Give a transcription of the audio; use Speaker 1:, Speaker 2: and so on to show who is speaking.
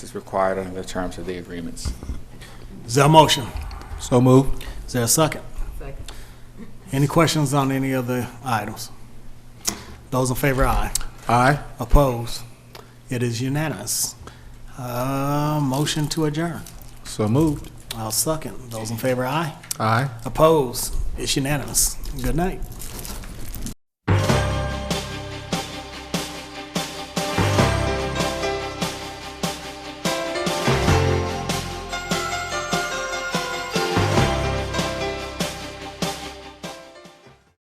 Speaker 1: is required under the terms of the agreements.
Speaker 2: Is there a motion?
Speaker 3: So moved.
Speaker 2: Is there a second?
Speaker 4: Second.
Speaker 2: Any questions on any of the items? Those in favor, aye.
Speaker 3: Aye.
Speaker 2: Opposed? It is unanimous. Uh, Motion to adjourn.
Speaker 3: So moved.
Speaker 2: I'll second. Those in favor, aye.
Speaker 3: Aye.
Speaker 2: Opposed? It's unanimous. Good night.